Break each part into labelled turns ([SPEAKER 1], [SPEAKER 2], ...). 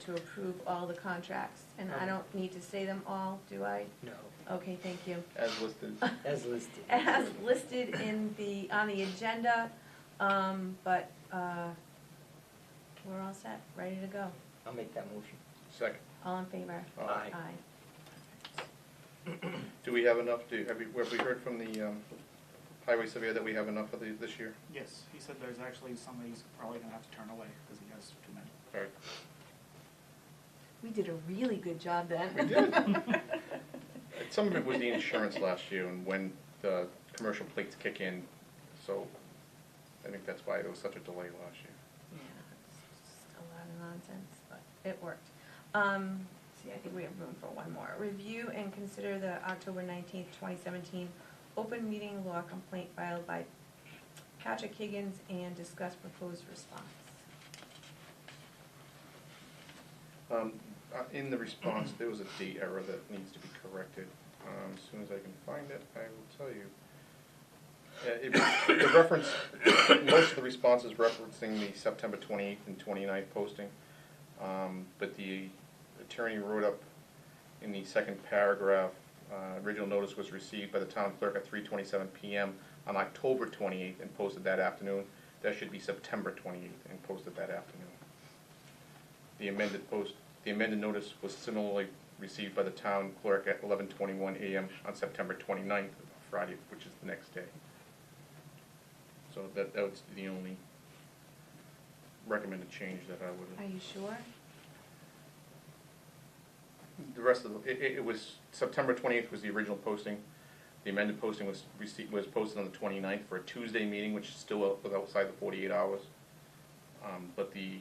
[SPEAKER 1] to approve all the contracts, and I
[SPEAKER 2] Um.
[SPEAKER 1] don't need to say them all, do I?
[SPEAKER 2] No,
[SPEAKER 1] Okay, thank you.
[SPEAKER 2] as listed.
[SPEAKER 3] as listed.
[SPEAKER 1] As listed in the, on the agenda, um, but, uh, we're all set, ready to go.
[SPEAKER 3] I'll make that motion.
[SPEAKER 2] Second.
[SPEAKER 1] All in favor?
[SPEAKER 3] Aye.
[SPEAKER 1] Aye.
[SPEAKER 2] Do we have enough, do, have we, have we heard from the, um, highway surveyor that we have enough for the, this year?
[SPEAKER 4] Yes, he said there's actually some that he's probably gonna have to turn away because he has too many.
[SPEAKER 2] All right.
[SPEAKER 1] We did a really good job then.
[SPEAKER 2] We did. Some of it was the insurance last year and when the commercial plates kick in, so I think that's why there was such a delay last year.
[SPEAKER 1] Yeah, it's just a lot of nonsense, but it worked. Um, see, I think we have room for one more. Review and consider the October nineteenth, twenty seventeen open meeting law complaint filed by Patrick Higgins and discuss proposed response.
[SPEAKER 2] Um, uh, In the response, there was a date error that needs to be corrected. Um, As soon as I can find it, I will tell you. Uh, it- The reference, most of the response is referencing the September 28th and 29th posting, Um, but the attorney wrote up in the second paragraph, uh, original notice was received by the town clerk at 3:27 PM on October 28th and posted that afternoon. That should be September 28th and posted that afternoon. The amended post, the amended notice was similarly received by the town clerk at eleven twenty-one AM on September 29th, Friday, which is the next day. So that, that was the only recommended change that I
[SPEAKER 1] Are
[SPEAKER 2] would,
[SPEAKER 1] you sure?
[SPEAKER 2] the rest of, the- it, it, it was, September twenty-eighth was the original posting. The amended posting was received, was posted on the 29th for a Tuesday meeting, which is still out- was outside the forty-eight hours. Um, but the,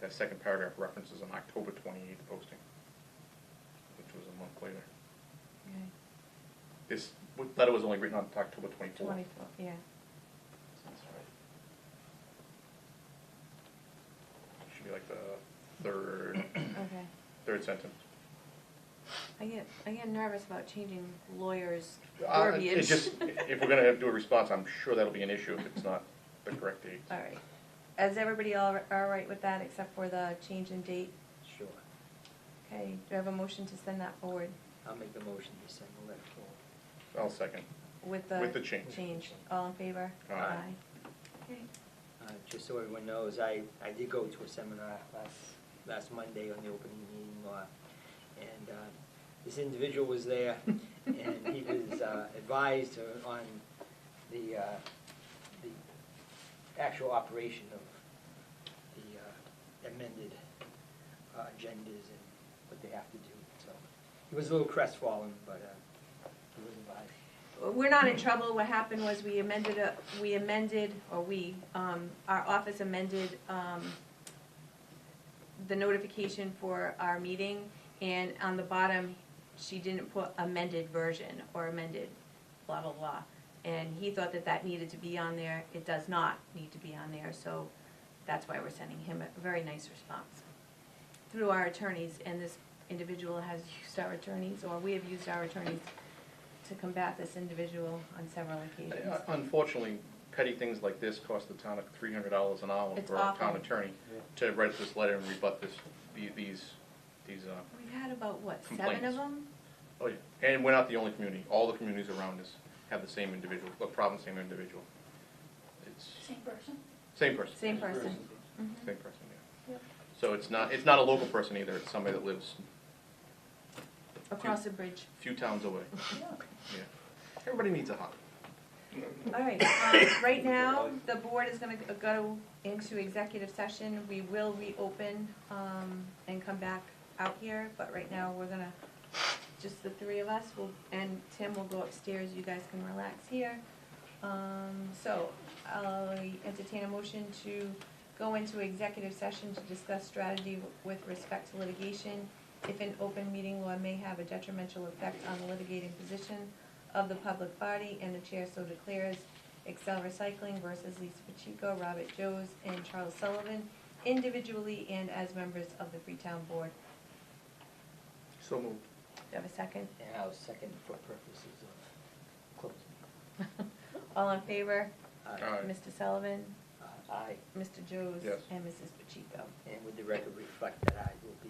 [SPEAKER 2] that second paragraph references an October twenty-eighth posting, which was a month later.
[SPEAKER 1] Okay,
[SPEAKER 2] This letter was only written on October twenty-fourth.
[SPEAKER 1] twenty-four, yeah.
[SPEAKER 2] Should be like the third,
[SPEAKER 1] Okay.
[SPEAKER 2] third sentence.
[SPEAKER 1] I get, I get nervous about changing lawyers'
[SPEAKER 2] Uh, it
[SPEAKER 1] verbiage.
[SPEAKER 2] just- If we're gonna have to do a response, I'm sure that'll be an issue if it's not the correct date.
[SPEAKER 1] All right. Is everybody all, all right with that except for the change in date?
[SPEAKER 3] Sure.
[SPEAKER 1] Okay, do I have a motion to send that forward
[SPEAKER 3] I'll make the motion to send the letter forward.
[SPEAKER 2] I'll second.
[SPEAKER 1] with the?
[SPEAKER 2] With the change.
[SPEAKER 1] Change, all in favor?
[SPEAKER 2] Aye.
[SPEAKER 1] Okay,
[SPEAKER 3] Uh, Just so everyone knows, I, I did go to a seminar last, last Monday on the opening meeting law. And uh, this individual was there and he was uh, advised on the, uh, the actual operation of the uh, amended uh, agendas and what they have to do. So he was a little crestfallen, but uh, he was advised.
[SPEAKER 1] We're not in trouble. What happened was we amended, a- we amended, or we, um, our office amended um, the notification for our meeting, and on the bottom, she didn't put amended version or amended blah, blah, blah. And he thought that that needed to be on there. It does not need to be on there, so that's why we're sending him a very nice response through our attorneys, and this individual has used our attorneys, or we have used our attorneys to combat this individual on several occasions.
[SPEAKER 2] Uh, Unfortunately, petty things like this cost the town like three hundred dollars an hour
[SPEAKER 1] It's
[SPEAKER 2] for our town
[SPEAKER 1] awful.
[SPEAKER 2] attorney to write this letter and rebut this, the- these, these, uh,
[SPEAKER 1] We've had about, what, seven of
[SPEAKER 2] Complaints.
[SPEAKER 1] them?
[SPEAKER 2] oh yeah. And we're not the only community. All the communities around us have the same individual, the problem, same individual. It's.
[SPEAKER 5] Same person?
[SPEAKER 2] Same person.
[SPEAKER 1] Same person. Mhm.
[SPEAKER 2] Same person, yeah.
[SPEAKER 5] Yep.
[SPEAKER 2] So it's not, it's not a local person either, it's somebody that lives
[SPEAKER 1] Across the bridge.
[SPEAKER 2] a few towns away,
[SPEAKER 5] Yeah.
[SPEAKER 2] yeah. Everybody needs a hobby.
[SPEAKER 1] All right, um, right now, the board is gonna go into executive session. We will reopen, um, and come back out here, but right now, we're gonna, just the three of us will, and Tim will go upstairs. You guys can relax here. Um, so I'll entertain a motion to go into executive session to discuss strategy with respect to litigation if an open meeting law may have a detrimental effect on the litigating position of the public body, and the chair so declares Excel Recycling versus Lisa Pacheco, Robert Joes, and Charles Sullivan individually and as members of the Freetown Board.
[SPEAKER 2] So moved.
[SPEAKER 1] Do you have a second?
[SPEAKER 3] And I'll second for purposes of closing.
[SPEAKER 1] All in favor?
[SPEAKER 3] Uh,
[SPEAKER 2] Aye.
[SPEAKER 1] Mr. Sullivan,
[SPEAKER 3] uh, Aye,
[SPEAKER 1] Mr. Joes,
[SPEAKER 2] Yes.
[SPEAKER 1] and Mrs. Pacheco.
[SPEAKER 3] and would the record reflect that I will be